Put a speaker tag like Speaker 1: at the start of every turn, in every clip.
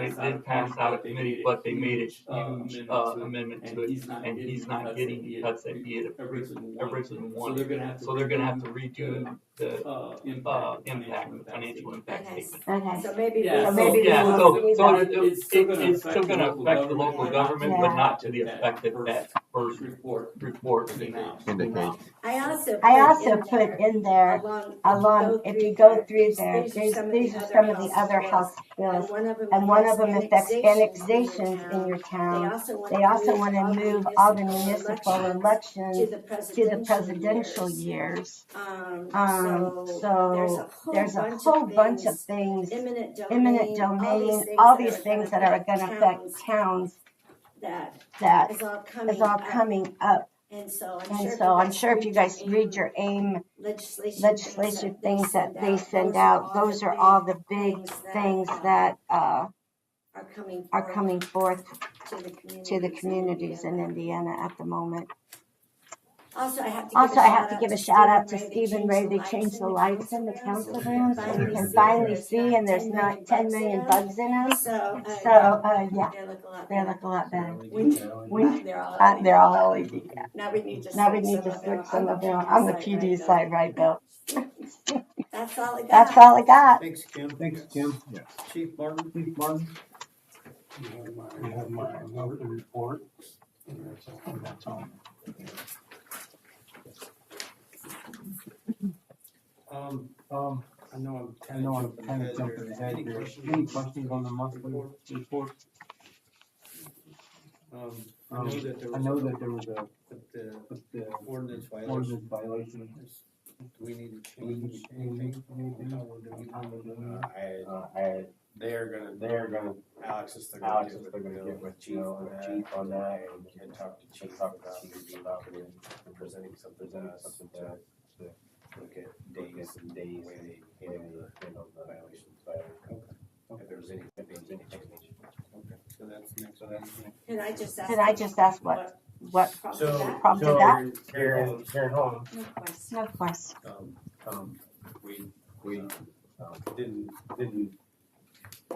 Speaker 1: it did pass out of committee, but they made a huge uh, amendment to it,
Speaker 2: he's not
Speaker 1: and he's not getting the cuts that he had
Speaker 2: originally
Speaker 1: originally
Speaker 2: So
Speaker 1: wanted.
Speaker 2: they're gonna have to.
Speaker 1: So they're gonna have to redo the,
Speaker 2: Uh,
Speaker 1: uh,
Speaker 2: impact,
Speaker 1: impact, the financial impact
Speaker 3: Okay.
Speaker 1: statement.
Speaker 4: Okay,
Speaker 3: So maybe.
Speaker 2: Yeah,
Speaker 3: we-
Speaker 2: so-
Speaker 3: maybe we
Speaker 1: Yeah,
Speaker 3: will-
Speaker 1: so,
Speaker 3: we
Speaker 1: so
Speaker 3: will-
Speaker 1: it, it-
Speaker 2: It's still gonna
Speaker 1: it's still
Speaker 2: affect the
Speaker 1: gonna
Speaker 2: local
Speaker 1: affect the local
Speaker 2: government,
Speaker 1: government,
Speaker 2: not
Speaker 1: but
Speaker 2: to
Speaker 1: not to the
Speaker 2: that
Speaker 1: effect that that first
Speaker 2: Report.
Speaker 1: report
Speaker 2: to now.
Speaker 5: Indicate.
Speaker 3: I also.
Speaker 4: I
Speaker 3: put
Speaker 4: also
Speaker 3: in
Speaker 4: put
Speaker 3: there
Speaker 4: in there
Speaker 3: Along.
Speaker 4: along, if you go through there,
Speaker 3: these are
Speaker 4: there's,
Speaker 3: some of
Speaker 4: these
Speaker 3: the
Speaker 4: are
Speaker 3: other
Speaker 4: some of the
Speaker 3: house
Speaker 4: other
Speaker 3: bills.
Speaker 4: house
Speaker 3: And
Speaker 4: bills.
Speaker 3: one of them.
Speaker 4: And one of them affects
Speaker 3: annexations
Speaker 4: annexations in your
Speaker 3: They
Speaker 4: town.
Speaker 3: also
Speaker 4: They also want to move all the municipal
Speaker 3: elections
Speaker 4: elections to the presidential
Speaker 3: years.
Speaker 4: years.
Speaker 3: Um,
Speaker 4: Um,
Speaker 3: so
Speaker 4: so there's a whole bunch of things,
Speaker 3: Imminent
Speaker 4: eminent domain, all these things that are gonna affect towns
Speaker 3: That
Speaker 4: that
Speaker 3: is all coming
Speaker 4: is all
Speaker 3: up.
Speaker 4: coming up.
Speaker 3: And so
Speaker 4: And so I'm sure if you guys read
Speaker 3: your
Speaker 4: your AIM
Speaker 3: legislation
Speaker 4: legislative things that they send out, those are all the big things that, uh,
Speaker 3: are coming
Speaker 4: are coming forth to
Speaker 3: to
Speaker 4: the communities in Indiana at the moment.
Speaker 3: Also, I have to
Speaker 4: Also, I have to give a shout out to
Speaker 3: Stephen
Speaker 4: Stephen Ray. They changed the lights in the council rooms so we can
Speaker 3: see
Speaker 4: finally
Speaker 3: there's
Speaker 4: see
Speaker 3: not
Speaker 4: and there's
Speaker 3: 10
Speaker 4: not
Speaker 3: million
Speaker 4: ten
Speaker 3: bugs in
Speaker 4: million
Speaker 3: them.
Speaker 4: bugs in them.
Speaker 3: So, uh,
Speaker 4: So, uh, yeah,
Speaker 3: they look a lot
Speaker 4: they
Speaker 3: better.
Speaker 4: look a lot better.
Speaker 3: Uh,
Speaker 4: We,
Speaker 3: They're all.
Speaker 4: uh, they're all LED.
Speaker 3: Now we need to.
Speaker 4: Now we
Speaker 3: switch
Speaker 4: need to
Speaker 3: them
Speaker 4: switch
Speaker 3: over
Speaker 4: some of them
Speaker 3: on
Speaker 4: on the PD
Speaker 3: right,
Speaker 4: side, right, Bill?
Speaker 3: though. That's all I got.
Speaker 4: That's all I got.
Speaker 6: Thanks, Kim.
Speaker 7: Thanks, Kim.
Speaker 5: Yes.
Speaker 6: Chief Martin.
Speaker 7: Chief Martin?
Speaker 6: You have my, you have my number to report. And that's all, and that's all. Um,
Speaker 7: Um,
Speaker 6: I know I'm
Speaker 7: I
Speaker 6: kind
Speaker 7: know
Speaker 6: of
Speaker 7: I'm
Speaker 6: jumping
Speaker 7: kind of
Speaker 6: ahead
Speaker 7: jumping
Speaker 6: there.
Speaker 7: ahead
Speaker 6: Any
Speaker 7: here.
Speaker 6: questions?
Speaker 7: Any questions on the monthly report?
Speaker 6: Um, I know
Speaker 7: Um,
Speaker 6: that there
Speaker 7: I know
Speaker 6: was,
Speaker 7: that there was a,
Speaker 6: but the
Speaker 7: the
Speaker 6: ordinance violation.
Speaker 7: ordinance violation.
Speaker 6: Do we need to change anything? on how we're doing it?
Speaker 8: I, I,
Speaker 6: They're gonna,
Speaker 8: they're gonna,
Speaker 6: Alex is still gonna
Speaker 8: Alex
Speaker 6: get
Speaker 8: is
Speaker 6: with
Speaker 8: still gonna
Speaker 6: Bill.
Speaker 8: get with Chief on that, on that, and we can talk to Chief about, about presenting something to us to look at days and days and handle the, handle the violations, but if there's any, if there's any change.
Speaker 6: Okay, So that's next, so that's next.
Speaker 3: Can I just ask?
Speaker 4: Did I just ask what, what,
Speaker 3: prompted
Speaker 8: So,
Speaker 3: that?
Speaker 4: Prompted
Speaker 8: so
Speaker 4: that?
Speaker 8: here- here in, here at home,
Speaker 3: No question.
Speaker 4: no question.
Speaker 6: Um,
Speaker 8: um, we,
Speaker 6: we
Speaker 8: we, um, didn't, didn't,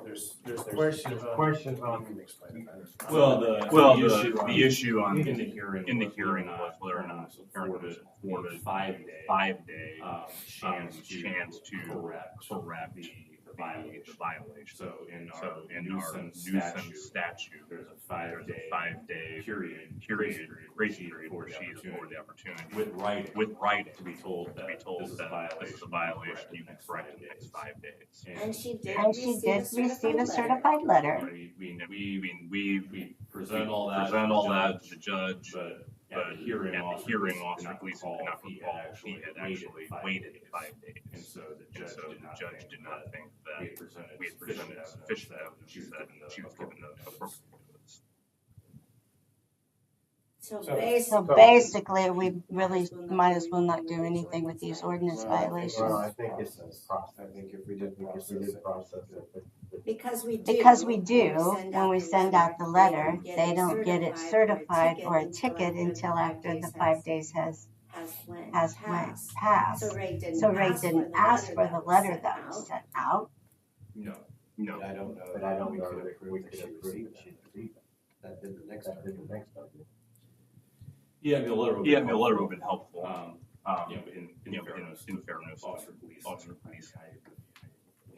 Speaker 8: there's, there's, there's
Speaker 6: questions on.
Speaker 8: questions
Speaker 6: You
Speaker 8: on.
Speaker 6: can explain it better.
Speaker 9: Well, the,
Speaker 5: Well,
Speaker 9: the
Speaker 5: the-
Speaker 9: issue on,
Speaker 5: the issue on,
Speaker 9: in the hearing,
Speaker 5: in the
Speaker 9: was
Speaker 5: hearing
Speaker 9: whether
Speaker 5: was whether or not
Speaker 9: for
Speaker 5: Aaron
Speaker 9: the,
Speaker 5: was
Speaker 9: for the five day
Speaker 5: five day
Speaker 9: um,
Speaker 5: chance,
Speaker 9: chance to
Speaker 5: chance to
Speaker 9: correct
Speaker 5: correct the, the
Speaker 9: violation.
Speaker 5: violation.
Speaker 9: So in our
Speaker 5: So in our
Speaker 9: nuisance
Speaker 5: nuisance
Speaker 9: statute,
Speaker 5: statute,
Speaker 9: there's a five
Speaker 5: there's
Speaker 9: day
Speaker 5: a five day
Speaker 9: period
Speaker 5: period, grace
Speaker 9: grace
Speaker 5: period
Speaker 9: for
Speaker 5: for
Speaker 9: the
Speaker 5: she is for
Speaker 9: opportunity
Speaker 5: the opportunity
Speaker 9: with writing
Speaker 5: with writing
Speaker 9: to be told
Speaker 5: to
Speaker 9: that
Speaker 5: be told
Speaker 9: this is a
Speaker 5: that this is a violation, you can correct it in the next
Speaker 9: five
Speaker 5: five days.
Speaker 9: days.
Speaker 3: And she did
Speaker 4: And she did receive a certified letter.
Speaker 5: We, we, we, we, we
Speaker 9: We present all that. to
Speaker 5: present
Speaker 9: the
Speaker 5: all that
Speaker 9: judge,
Speaker 5: to the judge,
Speaker 9: But
Speaker 5: but
Speaker 9: at the hearing
Speaker 5: at the
Speaker 9: officer,
Speaker 5: hearing
Speaker 9: did
Speaker 5: officer,
Speaker 9: not
Speaker 5: police did not
Speaker 9: he
Speaker 5: recall,
Speaker 9: had
Speaker 5: he had actually waited five
Speaker 9: And
Speaker 5: days.
Speaker 9: so the
Speaker 5: And
Speaker 9: judge
Speaker 5: so
Speaker 9: did
Speaker 5: the
Speaker 9: not
Speaker 5: judge
Speaker 9: think
Speaker 5: did
Speaker 9: that
Speaker 5: not think
Speaker 9: we
Speaker 5: that
Speaker 9: had presented
Speaker 5: we had presented
Speaker 9: sufficient
Speaker 5: sufficient evidence that she was given the appropriate notice.
Speaker 3: So
Speaker 6: So-
Speaker 4: So
Speaker 3: basically.
Speaker 4: basically, we really might as well not do anything with these ordinance
Speaker 8: Well, I think- Well,
Speaker 4: violations.
Speaker 8: I think it's a process, I think if we did, if we did process it, but
Speaker 3: Because we do.
Speaker 4: Because we do,
Speaker 3: send out
Speaker 4: when we
Speaker 3: the
Speaker 4: send out the letter,
Speaker 3: get
Speaker 4: they
Speaker 3: it
Speaker 4: don't get it certified or a ticket until after the five
Speaker 3: days
Speaker 4: days has,
Speaker 3: has went.
Speaker 4: has went
Speaker 3: past.
Speaker 4: past.
Speaker 3: So Ray didn't.
Speaker 4: So Ray
Speaker 3: ask for
Speaker 4: didn't
Speaker 3: the
Speaker 4: ask for the letter
Speaker 3: sent
Speaker 4: that
Speaker 3: out.
Speaker 4: was sent out.
Speaker 9: No,
Speaker 5: No,
Speaker 8: but I don't know.
Speaker 6: But I don't know that
Speaker 8: We could approve that.
Speaker 6: That did the next.
Speaker 8: That
Speaker 6: time.
Speaker 8: did the next time.
Speaker 9: yeah, I mean, a letter. would
Speaker 5: yeah, I
Speaker 9: be
Speaker 5: mean, a letter
Speaker 9: helpful.
Speaker 5: would have been helpful,
Speaker 9: Um,
Speaker 5: um,
Speaker 9: you know, in, in
Speaker 5: you know, in,
Speaker 9: fairness,
Speaker 5: in fairness, to
Speaker 9: officer police.
Speaker 5: officer police.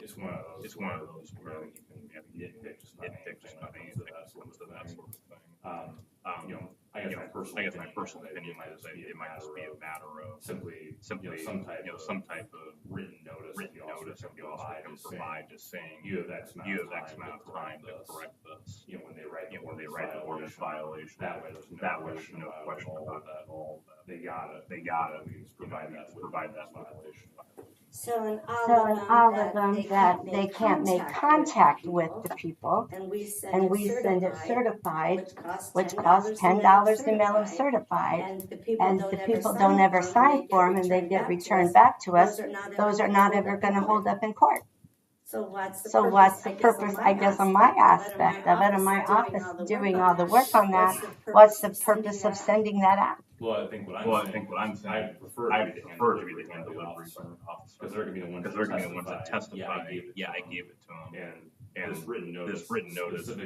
Speaker 9: It's one of those.
Speaker 5: It's one of those where
Speaker 9: you can have nitpick just about
Speaker 5: nitpick just about anything
Speaker 9: anything
Speaker 5: that comes to that sort of thing.
Speaker 9: Um,
Speaker 5: Um,
Speaker 9: you know, I guess my personal.
Speaker 5: I guess my
Speaker 9: opinion
Speaker 5: personal
Speaker 9: is that
Speaker 5: opinion is that it might just be a matter of
Speaker 9: Simply,
Speaker 5: simply,
Speaker 9: you know, some type
Speaker 5: you know,
Speaker 9: of
Speaker 5: some type of
Speaker 9: written notice. that
Speaker 5: written
Speaker 9: the officer
Speaker 5: notice
Speaker 9: can
Speaker 5: that the officer
Speaker 9: provide
Speaker 5: can
Speaker 9: is saying,
Speaker 5: provide just saying,
Speaker 9: You have X amount
Speaker 5: you
Speaker 9: of
Speaker 5: have
Speaker 9: time.
Speaker 5: X amount of
Speaker 9: to
Speaker 5: time to
Speaker 9: this."
Speaker 5: correct this.
Speaker 9: You know, when they write.
Speaker 5: You know, when they write the ordinance violation,
Speaker 9: That way, there's no.
Speaker 5: that way, there's no question
Speaker 9: all
Speaker 5: about
Speaker 9: of that.
Speaker 5: that, all of that.
Speaker 9: They got it.
Speaker 5: They got it,
Speaker 9: We can just
Speaker 5: you know,
Speaker 9: provide that. with
Speaker 5: provide that
Speaker 9: this
Speaker 5: violation.
Speaker 3: So in
Speaker 4: So in all of
Speaker 3: them
Speaker 4: them that they can't make contact with the people.
Speaker 3: And we send
Speaker 4: And we send it
Speaker 3: certified,
Speaker 4: certified, which
Speaker 3: which
Speaker 4: costs
Speaker 3: costs
Speaker 4: ten dollars to mail them certified.
Speaker 3: And the people
Speaker 4: And
Speaker 3: don't
Speaker 4: the
Speaker 3: ever
Speaker 4: people
Speaker 3: sign
Speaker 4: don't ever
Speaker 3: for 'em,
Speaker 4: sign for them and they get returned back to us.
Speaker 3: Those are not
Speaker 4: Those
Speaker 3: ever
Speaker 4: are not
Speaker 3: pulled
Speaker 4: ever
Speaker 3: up
Speaker 4: gonna
Speaker 3: on
Speaker 4: hold up in court.
Speaker 3: So what's the
Speaker 4: So
Speaker 3: purpose?
Speaker 4: what's the
Speaker 3: I guess,
Speaker 4: purpose,
Speaker 3: on
Speaker 4: I guess, on my
Speaker 3: aspect of it,
Speaker 4: aspect of it, on my office doing all the work on that,
Speaker 3: that,
Speaker 4: what's the purpose of
Speaker 3: sending?
Speaker 4: sending that out?
Speaker 9: Well, I think what I'm.
Speaker 5: Well, I
Speaker 9: saying
Speaker 5: think what
Speaker 9: is
Speaker 5: I'm saying,
Speaker 9: I prefer.
Speaker 5: I
Speaker 9: to be the hand
Speaker 5: prefer to be
Speaker 9: delivery
Speaker 5: the hand
Speaker 9: by the
Speaker 5: delivery
Speaker 9: officer,
Speaker 5: by the officer.
Speaker 9: Cause they're gonna be the ones.
Speaker 5: Because they're gonna be the ones
Speaker 9: that
Speaker 5: that testify,
Speaker 9: I gave it to
Speaker 5: yeah, I
Speaker 9: them,"
Speaker 5: gave it to them.
Speaker 9: And
Speaker 5: And
Speaker 1: This written notice.
Speaker 5: this written notice
Speaker 1: specific